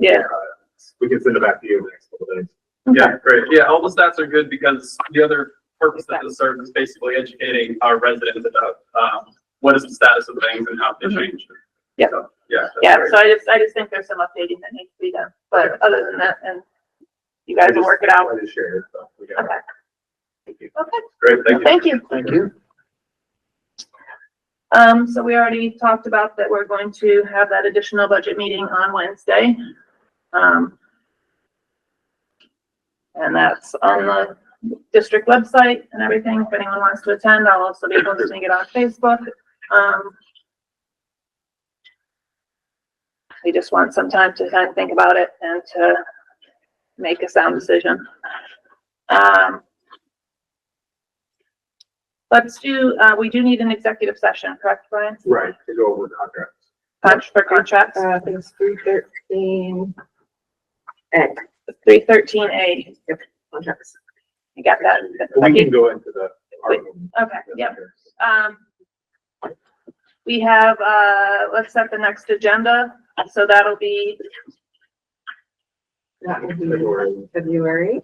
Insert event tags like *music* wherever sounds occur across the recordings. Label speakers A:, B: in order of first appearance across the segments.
A: Yeah.
B: We can send it back to you in the next couple days.
C: Yeah, great. Yeah, all the stats are good because the other purpose that this serves is basically educating our residents about, um, what is the status of things and how they change.
A: Mm-hmm. Yeah.
C: So, Yeah. that's
A: Yeah,
C: great.
A: so I just, I just think there's some updating that needs to be done,
C: Yeah.
A: but other than that, and you guys will work it out.
B: I just shared it, so we got it.
A: Okay,
B: Thank you.
A: okay,
C: Great, thank you.
D: Thank
A: thank you.
D: you.
A: Um, so we already talked about that we're going to have that additional budget meeting on Wednesday. Um, and that's on the district website and everything. If anyone wants to attend, I'll also be posting it on Facebook. Um, we just want some time to kind of think about it and to make a sound decision. Um, let's do, uh, we do need an executive session, correct, Brian?
B: Right, to go over contracts.
A: Con- For contracts?
E: Uh, I think it's three thirteen. X
A: Three thirteen A,
E: contracts.
A: you got that?
B: We can go into the.
A: Wait, Okay, yep, um. We have, uh, let's set the next agenda, so that'll be,
E: That would be
B: February.
E: February.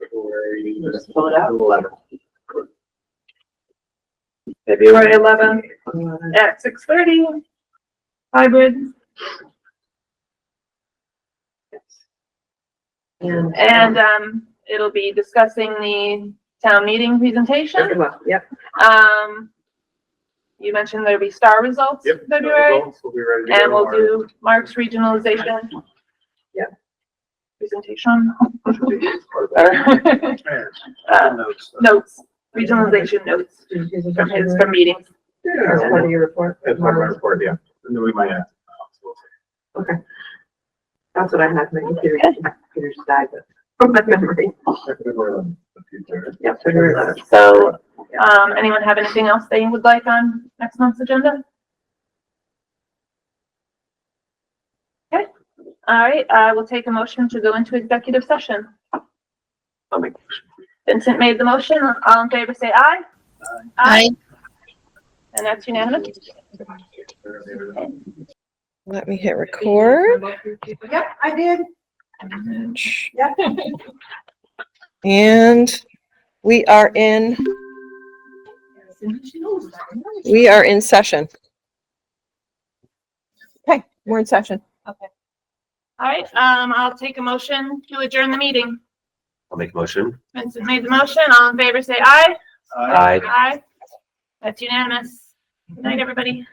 B: February.
E: Just pull it out.
B: Eleven.
A: February eleventh
E: Uh,
A: at six thirty. Hybrid,
E: And.
A: and, um, it'll be discussing the town meeting presentation,
E: uh, Well, Yep,
A: um. You mentioned there'll be star results
B: Yep.
A: in February,
B: We'll be ready to go.
A: and we'll do Mark's regionalization.
E: Yep.
A: Presentation, *laughs*
B: Our-
A: or, uh, notes, regionalization notes.
E: Did you use
A: from his,
E: it
A: from meetings.
E: as part
B: Yeah.
E: of your report? Um,
B: That's part of my report, yeah. And then we might add. uh,
E: Okay. That's what I had, my computer, my computer's died, but from my memory.
B: February eleventh, the future.
E: Yep, February eleventh.
A: So, um, anyone have anything else they would like on next month's agenda? Okay, all right, I will take a motion to go into executive session. Vincent made the motion, all in favor, say aye. Aye. And that's unanimous?
F: Let me hit record.
E: Yep, I did. *laughs* Yep.
F: And we are in, we are in session. Okay, we're in session.
A: All right, um, I'll take a motion to adjourn the meeting.
G: I'll make a motion.
A: Vincent made the motion, all in favor, say aye.
B: Uh,
G: Aye.
A: Aye. That's unanimous. Good night, everybody.